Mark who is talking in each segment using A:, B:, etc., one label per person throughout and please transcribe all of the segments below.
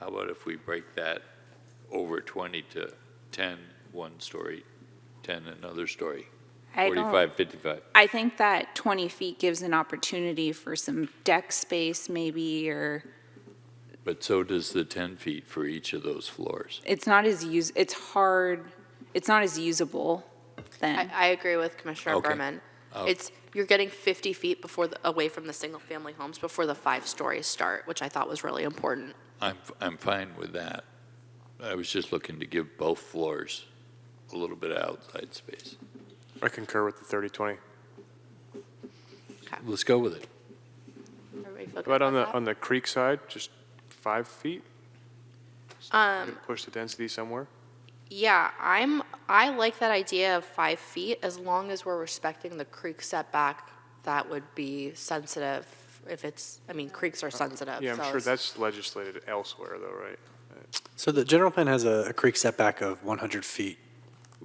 A: How about if we break that over 20 to 10, one story, 10 another story?
B: I don't-
A: 45, 55.
B: I think that 20 feet gives an opportunity for some deck space maybe, or
A: But so does the 10 feet for each of those floors.
B: it's not as use, it's hard, it's not as usable
C: I,
B: then.
C: I agree with Commissioner
A: Okay.
C: Berman.
D: Oh.
C: It's, you're getting 50 feet before, the- away from the single-family homes before the five stories start, which I thought was really important.
A: I'm, I'm fine with that. I was just looking to give both floors a little bit of outside space.
E: I concur with the 30-20.
A: Let's go with it.
C: Everybody feel good
E: But on the,
C: about that?
E: on the creek side, just five feet? Um. Push the density somewhere?
C: Yeah, I'm, I like that idea of five feet, as long as we're respecting the creek setback, that would be sensitive if it's, I mean, creeks are sensitive.
E: Yeah,
C: so
E: I'm sure
C: it's-
E: that's legislated elsewhere though, right?
D: So the general plan has a, a creek setback of 100 feet.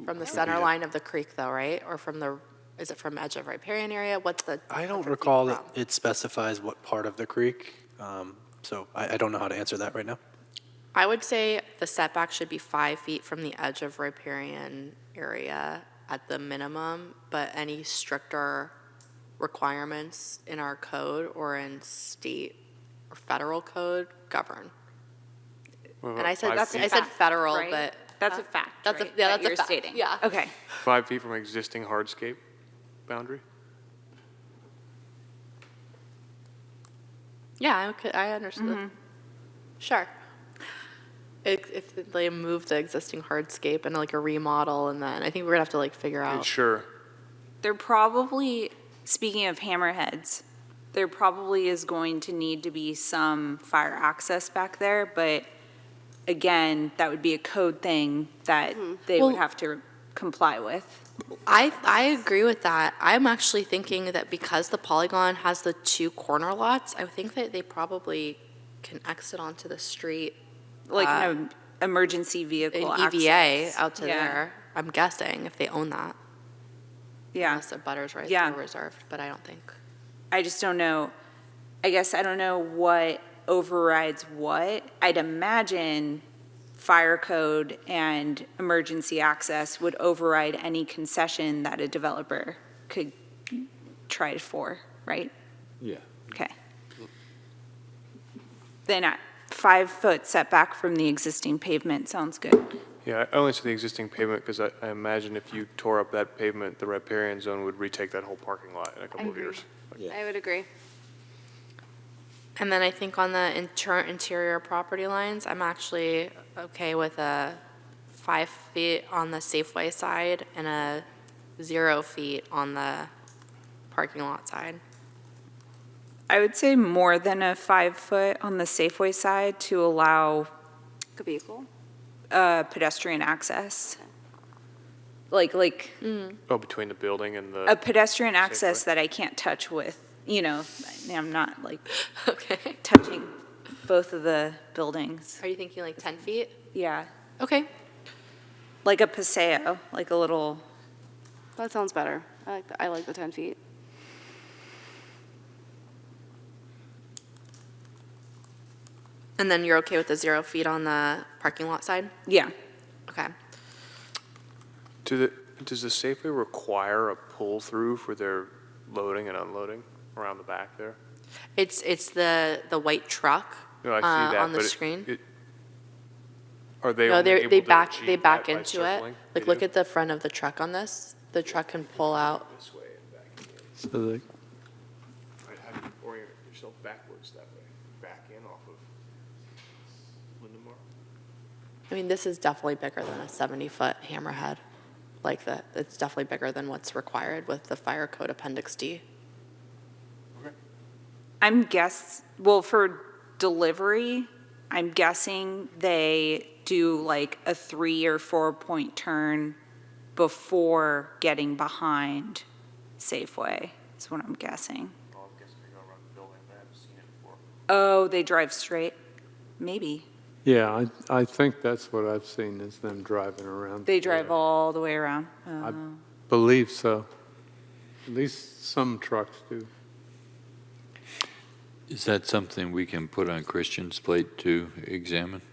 C: From the center line of the creek though, right? Or from the, is it from edge of riparian area? What's the?
D: I
C: 100
D: don't
C: feet
D: recall that
C: from?
D: it specifies what part of the creek, um, so I, I don't know how to answer that right now.
C: I would say the setback should be five feet from the edge of riparian area at the minimum, but any stricter requirements in our code or in state or federal code govern.
E: What
C: And
E: about
C: I said,
E: five
C: that's, I
E: feet-
C: said
B: Fact,
C: federal,
B: right?
C: but
B: That's a fact,
C: that's a-
B: right,
C: yeah,
B: that
C: that's a
B: you're
C: fact,
B: stating?
C: yeah.
B: Okay.
E: Five feet from existing hardscape boundary?
C: yeah, I could, I understood. Mm-hmm. Sure. If, if they move the existing hardscape and like a remodel and then, I think we're gonna have to like figure out.
E: Sure.
B: There probably, speaking of hammerheads, there probably is going to need to be some fire access back there, but again, that would be a code thing that they would
C: Hmm. Well-
B: have to comply with.
C: I, I agree with that. I'm actually thinking that because the polygon has the two corner lots, I think that they probably can exit onto the street
B: like
C: Uh,
B: an em- emergency
C: in
B: vehicle
C: EVA
B: access.
C: E out to
B: Yeah.
C: there. I'm guessing if they own that,
B: Yeah,
C: unless the butters right
B: Yeah.
C: there reserved, but I don't think.
B: I just don't know. I guess I don't know what overrides what. I'd imagine fire code and emergency access would override any concession that a developer could try for, right?
A: Yeah.
B: Okay. Then a five-foot setback from the existing pavement sounds good.
E: Yeah, I only said the existing pavement because I, I imagine if you tore up that pavement, the riparian zone would retake that whole parking lot in a couple of years.
F: I would agree.
C: And then I think on the inter- interior property lines, I'm actually okay with a five feet on the Safeway side and a zero feet on the parking lot side.
B: I would say more than a five foot on the Safeway side to allow
F: Could be equal.
B: uh, pedestrian access. Like, like
E: Oh, between the building and the.
C: Uh,
B: a pedestrian access
E: Safeway.
B: that I can't touch with, you know, I'm not like
C: Okay.
B: touching both of the buildings.
C: Are you thinking like 10 feet?
B: Yeah,
C: Okay.
B: like a paseo, like a little,
F: That sounds better. I like, the- I like the 10 feet.
C: And then you're okay with the zero feet on the parking lot side?
B: yeah.
C: Okay.
E: Do the, does the Safeway require a pull-through for their loading and unloading around the back there?
C: It's, it's the, the white truck
E: No, I see
C: uh,
E: that,
C: on the
E: but it-
C: screen.
E: it- Are they
C: No,
E: only
C: they,
E: able
C: they
E: to
C: back,
E: achieve
C: they
E: that
C: back
E: by
C: into it.
E: circling? They
C: Like, look
E: do?
C: at the front of the truck on this. The truck can pull out.
D: So the,
E: Right, how do you orient yourself backwards that way? Back in off of Lindemar?
C: I mean, this is definitely bigger than a 70-foot hammerhead. Like, that, it's definitely bigger than what's required with the fire code appendix D.
B: I'm guess, well, for delivery, I'm guessing they do like a three or four point turn before getting behind Safeway, is what I'm guessing.
E: Oh, I'm guessing they go around the building, I haven't seen it before.
B: Oh, they drive straight? Maybe.
G: Yeah, I, I think that's what I've seen is them driving around.
B: They drive all the way around?
G: I
B: Oh.
G: believe so. At least some trucks do.
A: Is that something we can put on Christian's plate to examine?